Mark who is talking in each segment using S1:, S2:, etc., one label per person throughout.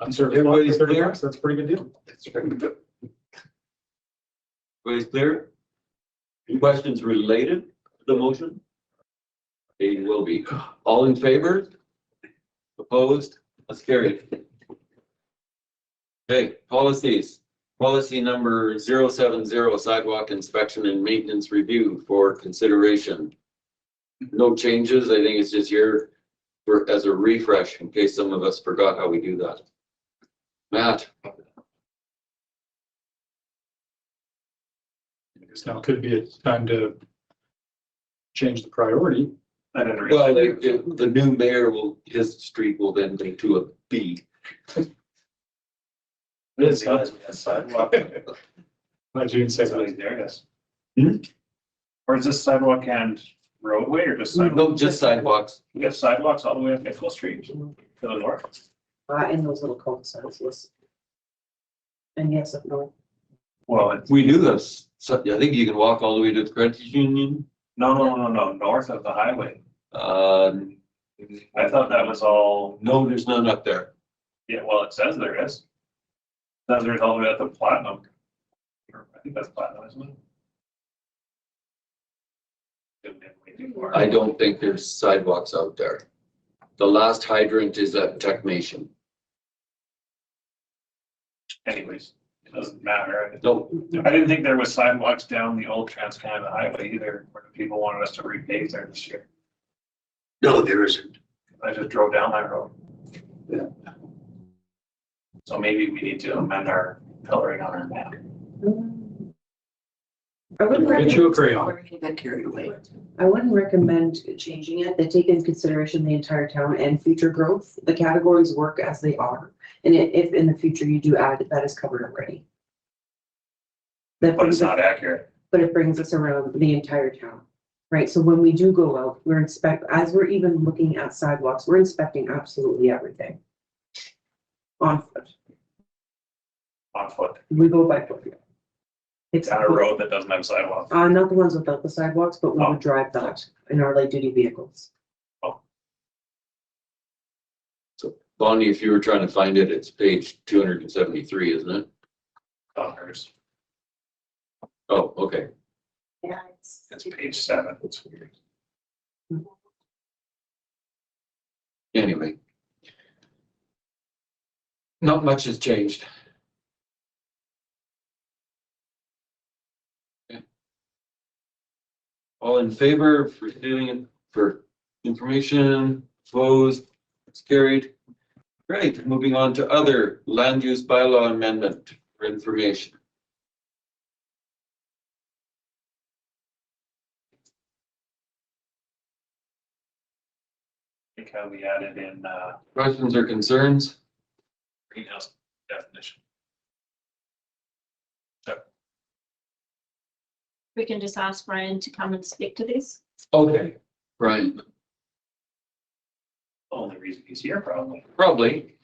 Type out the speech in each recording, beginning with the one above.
S1: On service block,
S2: Everybody's
S1: thirty
S2: clear?
S1: bucks, that's a pretty good deal.
S2: Everybody's clear? Any Questions related to the motion? They will be. All in favor? Opposed? That's carried. Okay, policies. Policy number 070 sidewalk inspection and maintenance review for consideration. No changes. I think it's just here for, as a refresh in case some of us forgot how we do that. Matt?
S1: Because now could be a time to change the priority. I don't
S2: Well, they- the, the new mayor will, his street will then be to a B.
S1: It's not By June second.
S3: There it is.
S1: Hmm?
S3: Or is this sidewalk and roadway or just sidewalk?
S2: No, just sidewalks.
S3: We got sidewalks all the way up Nickel Street to the north.
S4: Uh, in those little cul-de-sacs, yes. And yes, of course.
S3: Well, it's,
S2: We do this. So I think you can walk all the way to the credit union.
S3: no, no, no, no, north of the highway.
S2: Um,
S3: I thought that was all,
S2: no, there's none up there.
S3: yeah, well, it says there is. Says there's all the way up to Platinum. Or I think that's Platinum, isn't it? Didn't have way too far.
S2: I don't think there's sidewalks out there. The last hydrant is at Tech Nation.
S3: Anyways, it doesn't matter.
S2: No,
S3: I didn't think there was sidewalks down the old Trans Canada Highway either, where people wanted us to repave there this year.
S5: No, there isn't.
S3: I just drove down that road. Yeah. So maybe we need to amend our coloring on our map.
S4: I wouldn't
S1: Get
S4: recommend,
S1: you a crayon.
S5: We're gonna get carried away.
S4: I wouldn't recommend changing it. They take into consideration the entire town and future growth. The categories work as they are. And i- if in the future you do add, that is covered already. That
S3: But it's
S4: brings us-
S3: not accurate.
S4: but it brings us around the entire town. Right, so when we do go out, we're inspect, as we're even looking at sidewalks, we're inspecting absolutely everything. On foot,
S3: on foot,
S4: we go by foot. It's.
S3: down a road that doesn't have sidewalks.
S4: Uh, not the ones without the sidewalks, but we
S3: Oh.
S4: would drive that in our light duty vehicles.
S2: Bonnie, if you were trying to find it, it's page two hundred and seventy-three, isn't it?
S3: Colours.
S2: Oh, okay.
S4: Yeah.
S3: It's page seven. It's weird.
S2: Anyway. Not much has changed. Okay. All in favor for doing it for information, opposed, it's carried. Great, moving on to other land use bylaw amendment for information.
S3: I think how we added in uh
S2: Questions or concerns?
S3: greenhouse definition.
S6: we can just ask Brian to come and speak to this.
S2: Okay. Brian,
S3: Only reason he's here probably
S2: probably.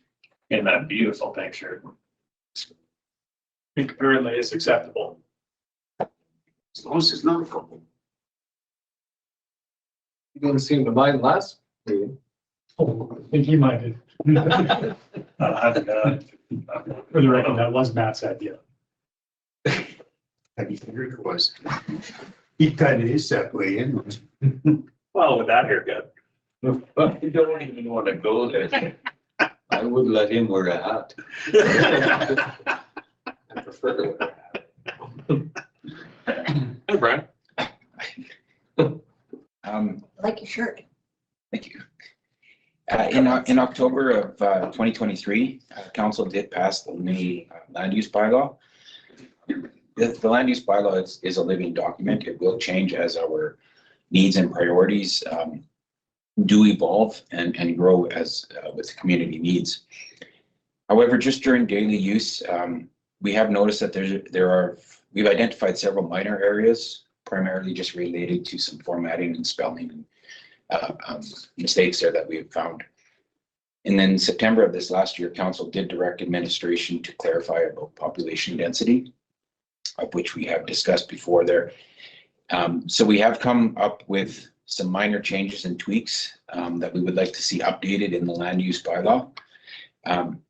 S3: in that beautiful picture.
S1: think apparently it's acceptable.
S5: As long as it's not a couple.
S1: You didn't seem to mind last meeting. Oh, I think he minded. For
S3: Uh, I've got-
S1: the record, that was Matt's idea.
S5: I figured it was. He kind of is that way, and
S3: Well, with that haircut.
S2: I don't even want to go there. I would let him wear a hat. I prefer to wear a hat. Hey, Brian.
S7: Um,
S8: like your shirt.
S7: thank you. Uh, in, O- in October of, uh, twenty twenty-three, uh, council did pass the new uh, land use bylaw. The, the land use bylaw is, is a living document. It will change as our needs and priorities, um, do evolve and, and grow as, uh, with the community needs. However, just during daily use, um, we have noticed that there's, there are, we've identified several minor areas, primarily just related to some formatting and spelling and uh, um, mistakes there that we have found. And then September of this last year, council did direct administration to clarify about population density, of which we have discussed before there. Um, So we have come up with some minor changes and tweaks um, that we would like to see updated in the land use bylaw. Um,